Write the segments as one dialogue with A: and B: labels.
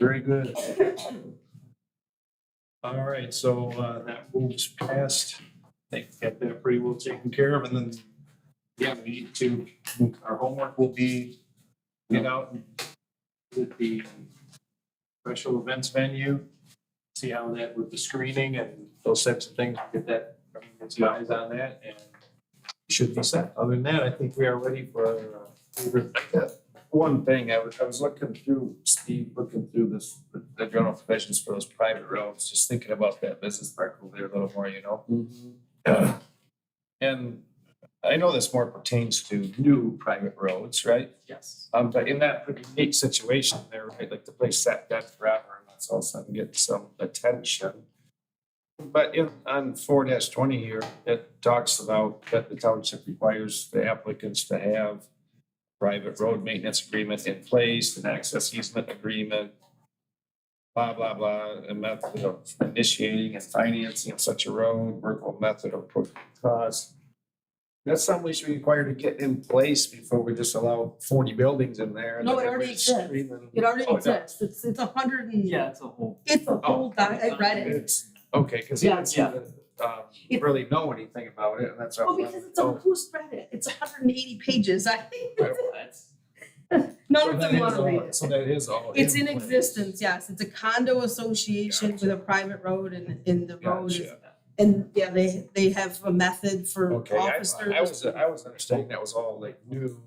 A: Very good. All right, so uh, that moves past. I think we got that pretty well taken care of, and then, yeah, we need to, our homework will be get out and visit the special events venue, see how that with the screening and those types of things, get that, get some eyes on that, and it should be set. Other than that, I think we are ready for our uh, favorite
B: One thing, I was, I was looking through, Steve, looking through this, the- the general provisions for those private roads, just thinking about that business park over there a little more, you
C: Mm-hmm.
B: know? And I know this more pertains to new private roads, right?
A: Yes.
B: Um, but in that pretty unique situation there, right, like the place sat dead forever and that's all of a sudden getting some attention. But in, on four twenty here, it talks about that the township requires the applicants to have private road maintenance agreement in place, an access easement agreement, blah, blah, blah, a method of initiating and financing such a road, workable method of approach cost. That's something we should require to get in place before we just allow forty buildings in there. and
D: No, it
B: then
D: already
B: we
D: exists.
B: scream and-
D: It already
B: Oh, no.
D: exists. It's, it's a hundred and,
C: Yeah, it's a whole.
D: it's
B: Oh.
D: a whole doc, I read it.
B: It's, okay, cause he
D: Yeah,
B: didn't seem to, um,
D: It-
B: really know anything about it, and that's.
D: Well, because it's
B: oh,
D: a, who's read it? It's hundred and eighty pages. I think
C: That's
D: none of them wanna read it.
B: So that is all.
D: It's in
B: place.
D: existence, yes. It's a condo association with a private road and, and the road is,
B: Gotcha.
D: and yeah, they, they have a method for
B: Okay, I,
D: officers.
B: I was, I was understanding that was all like new.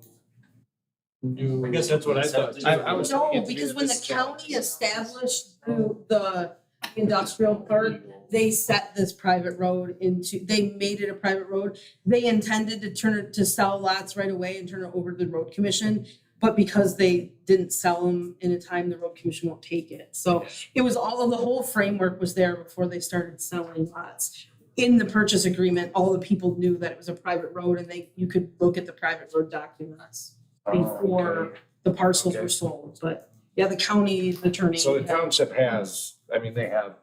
B: New.
A: I guess that's what I thought.
B: I, I was. thinking
D: No,
B: it's
D: because
B: new
D: when the
B: this
D: county
B: challenge.
D: established the, the industrial park, they set this private road into, they made it a private road. They intended to turn it, to sell lots right away and turn it over to the road commission. But because they didn't sell them in a time, the road commission won't take it. So it was all of the whole framework was there before they started selling lots. In the purchase agreement, all the people knew that it was a private road and they, you could look at the private road documents,
B: Oh,
D: before the parcels
B: Okay.
D: were sold. But yeah, the county
B: okay.
D: attorney.
B: So the
D: had-
B: township has, I mean, they have,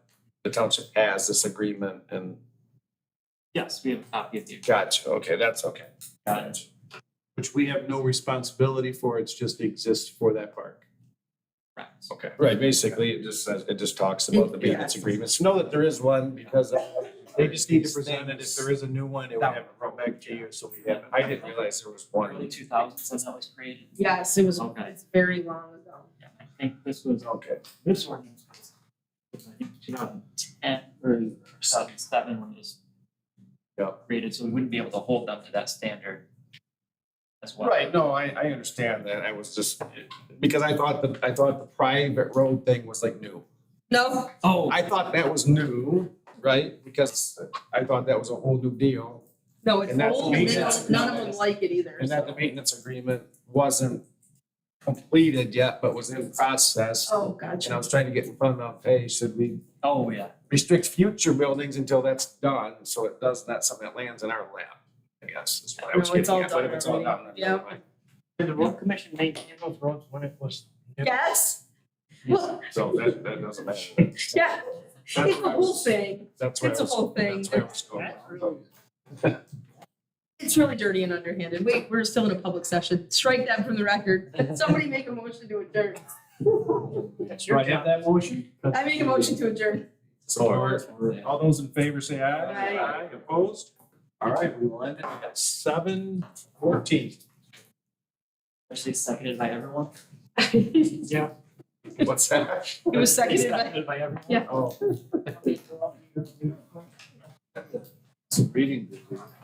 B: the township has this agreement and,
C: Yes, we have a copy of the.
B: gotcha, okay, that's okay. Gotcha.
A: Which we have no responsibility for, it's just exists for that park.
C: Correct.
B: Okay, right, basically, it just says, it just talks about the
D: It-
B: maintenance
D: yeah.
B: agreements, know that there is one, because uh,
A: They just need to present it, if there is a new one, it would have to come back to you, so we have.
B: Yeah, I didn't realize there was
C: Early
B: one.
C: two thousand since that was created.
D: Yes, it was,
C: Okay.
D: it's very long ago.
C: Yeah, I think this was,
B: Okay,
C: this ordinance was, was I think two thousand ten or two thousand seven when it was
B: Yeah.
C: created, so we wouldn't be able to hold them to that standard as well.
B: right, no, I, I understand that, I was just, because I thought the, I thought the private road thing was like new.
D: No,
C: Oh,
B: I thought that was new, right, because I thought that was a whole new deal,
D: no, it's
B: And that's
D: old, and they
B: maintenance.
D: don't- none of them like it either.
B: and that the
D: so-
B: maintenance agreement wasn't completed yet, but was in process.
D: Oh,
B: And I
D: gotcha.
B: was trying to get in front of, hey, should we
C: oh, yeah,
B: restrict future buildings until that's done, so it does, not something that lands in our lap. I guess is what I was
D: No, it's
B: getting
D: all
B: at, but if
D: done
B: it's all
D: already.
B: done, then never mind.
E: Did the road commission maintain those roads when it was?
D: Yes, well,
B: So that, that doesn't matter.
D: yeah, it's
B: what
D: the
B: I
D: whole
B: was-
D: thing.
B: That's where I
D: it's a
B: was-
D: whole thing.
B: That's where I was going.
D: It's really dirty and underhanded. Wait, we're still in a public session. Strike that from the record. Somebody make a motion to adjourn.
E: That's
A: Do I have that motion?
D: I make a motion to adjourn.
B: So we're-
A: All those in favor say aye.
D: Aye.
A: Opposed? All right, we will end it at seven fourteen.
C: especially seconded by everyone.
D: It
B: what's that?
D: was seconded by.
E: By everyone.
A: Oh.
D: Yeah.
B: Oh.
A: Reading.